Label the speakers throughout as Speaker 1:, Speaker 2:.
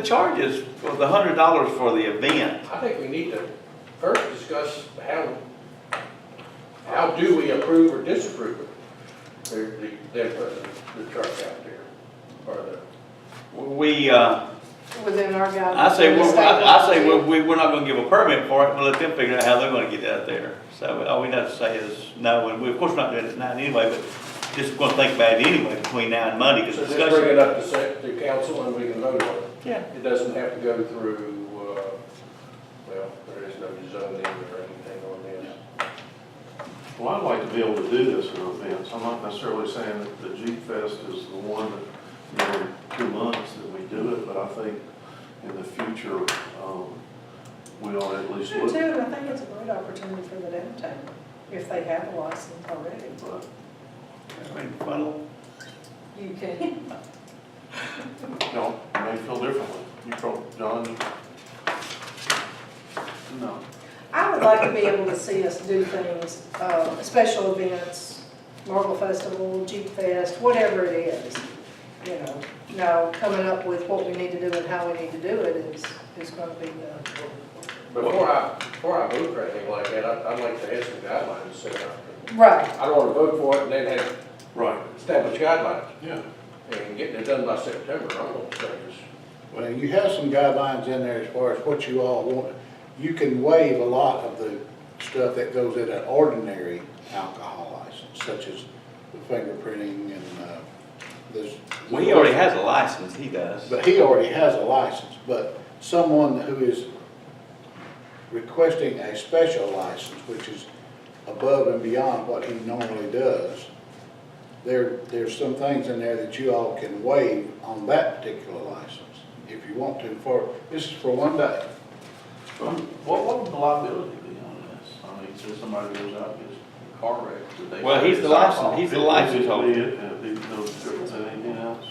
Speaker 1: The charges was a hundred dollars for the event.
Speaker 2: I think we need to first discuss how, how do we approve or disapprove the, the, the the truck out there? Or the,
Speaker 1: We, uh,
Speaker 3: within our guidelines.
Speaker 1: I say,
Speaker 3: the
Speaker 1: we're-
Speaker 3: state
Speaker 1: I I say,
Speaker 3: laws.
Speaker 1: we're, we- we're not gonna give a permit for it, but let them figure out how they're gonna get that there. So all we have to say is no, and we, of course, we're not doing it tonight anyway, but just gonna think about it anyway between now and Monday, because
Speaker 2: so just
Speaker 1: discussion.
Speaker 2: bring it up to sec, to council and we can vote on it.
Speaker 1: Yeah.
Speaker 2: It doesn't have to go through, uh, well, there is no zoning or anything on this.
Speaker 4: Well, I'd like to be able to do this in events. I'm not necessarily saying that the Jeep Fest is the one that, you know, two months that we do it, but I think in the future, um, we ought to at least
Speaker 3: Sure,
Speaker 4: look.
Speaker 3: too,
Speaker 4: at it.
Speaker 3: and I think it's a great opportunity for the downtown, if they have a license already.
Speaker 4: But
Speaker 1: I mean, funnel.
Speaker 3: You can.
Speaker 4: Y'all may feel differently. You probably, John, you-
Speaker 5: No.
Speaker 3: I would like to be able to see us do things, uh, special events, Marble Festival, Jeep Fest, whatever it is, you know. Now, coming up with what we need to do and how we need to do it is, is gonna be the.
Speaker 2: Before I, before I vote for anything like that, I, I'd like to have some guidelines set up.
Speaker 3: Right,
Speaker 2: I don't wanna vote for it and then have
Speaker 4: right,
Speaker 2: established guidelines
Speaker 4: yeah.
Speaker 2: and getting it done by September, I'm gonna say this.
Speaker 6: Well, you have some guidelines in there as far as what you all want. You can waive a lot of the stuff that goes in an ordinary alcohol license, such as the fingerprinting and, uh, this.
Speaker 1: Well, he already has a license, he does.
Speaker 6: But he already has a license, but someone who is requesting a special license, which is above and beyond what he normally does, there, there's some things in there that you all can waive on that particular license, if you want to, for, this is for one day.
Speaker 5: Um, What, what would the liability be on this? I mean, so somebody goes out, and gets a car wrecked, do they?
Speaker 1: Well, he's the license, he's the license
Speaker 4: It'd be
Speaker 1: holder.
Speaker 4: it, and it'd be no different than anything else.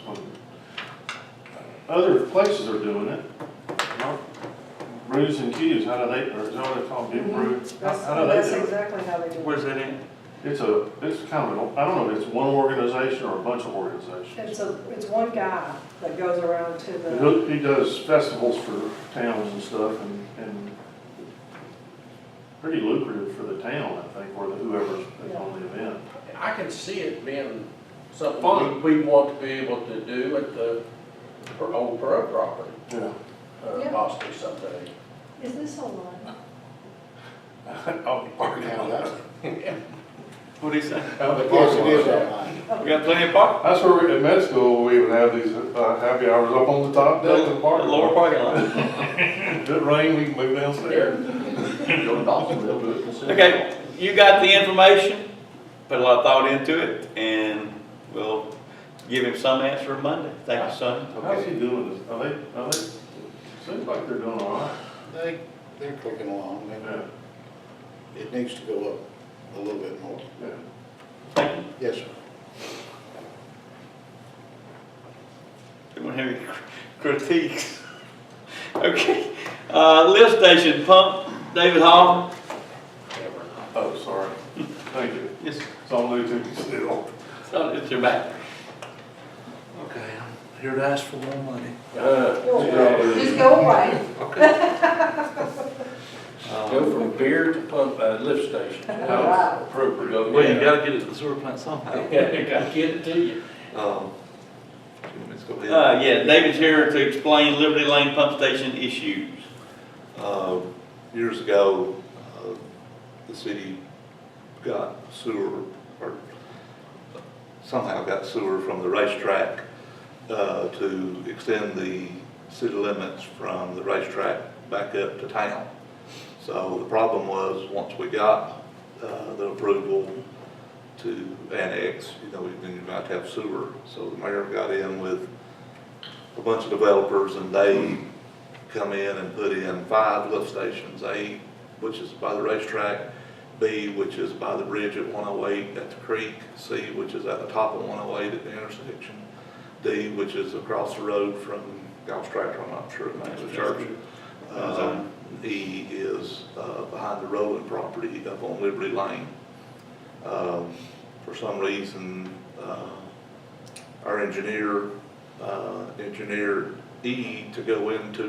Speaker 4: Other places are doing it. Brews and Q's, how do they, or is that what they call it, Big Brew? How
Speaker 3: that's,
Speaker 4: how do they
Speaker 3: that's
Speaker 4: do it?
Speaker 3: exactly how they do it.
Speaker 1: Where's that in?
Speaker 4: It's a, it's kind of, an- I don't know if it's one organization or a bunch of organizations.
Speaker 3: It's a, it's one guy that goes around to the.
Speaker 4: He- He does festivals for towns and stuff and, and pretty lucrative for the town, I think, or the whoever's on the event.
Speaker 2: I can see it being something we we want to be able to do at the per- old Pearl property,
Speaker 4: Yeah.
Speaker 2: uh,
Speaker 3: Yeah.
Speaker 2: possibly someday.
Speaker 3: Is this online?
Speaker 4: I'll be parking
Speaker 6: Now,
Speaker 4: out
Speaker 6: that,
Speaker 4: that.
Speaker 1: What'd he say?
Speaker 6: yes, it is online.
Speaker 1: We got plenty of park,
Speaker 4: That's where, we- in med school, we would have these uh, happy hours up on the top deck of the park.
Speaker 1: lower parking lot.
Speaker 4: If it rained, we can move downstairs.
Speaker 5: Go to Dawsonville, do it. and send it.
Speaker 1: Okay, you got the information, put a lot of thought into it, and we'll give him some answer Monday. Thank you, Sonny.
Speaker 4: How's he doing this? Are they, are they, seems like they're doing all right.
Speaker 6: They, they're clicking along,
Speaker 4: Yeah,
Speaker 6: and it needs to go up a little bit more.
Speaker 4: yeah.
Speaker 1: Thank you.
Speaker 6: Yes, sir.
Speaker 1: We don't have any critiques. Okay, uh, lift station pump, David Hall.
Speaker 4: Oh, sorry. Thank you.
Speaker 1: Yes,
Speaker 4: It's on Bluetooth still.
Speaker 1: so it's your back.
Speaker 5: Okay, I'm here to ask for more money.
Speaker 2: Uh,
Speaker 3: Just go away.
Speaker 5: Okay.
Speaker 2: Go from beer to pump, uh, lift station.
Speaker 3: Wow.
Speaker 2: Appropriate.
Speaker 5: Well, you gotta get it to the sewer plant somehow.
Speaker 2: Yeah, they gotta get it to you.
Speaker 5: Um, let's go ahead.
Speaker 1: Uh, yeah, David's here to explain Liberty Lane pump station issues.
Speaker 5: Uh, Years ago, uh, the city got sewer, or somehow got sewer from the racetrack uh, to extend the city limits from the racetrack back up to town. So the problem was, once we got uh, the approval to annex, you know, we didn't have to have sewer. So the mayor got in with a bunch of developers and they come in and put in five lift stations, A, which is by the racetrack, B, which is by the bridge at one oh eight at the creek, C, which is at the top of one oh eight at the intersection, D, which is across the road from Gulf Tractor, I'm not sure, maybe the church. Uh, E is, uh, behind the Rowland property up on Liberty Lane. Um, for some reason, uh, our engineer, uh, engineered E to go into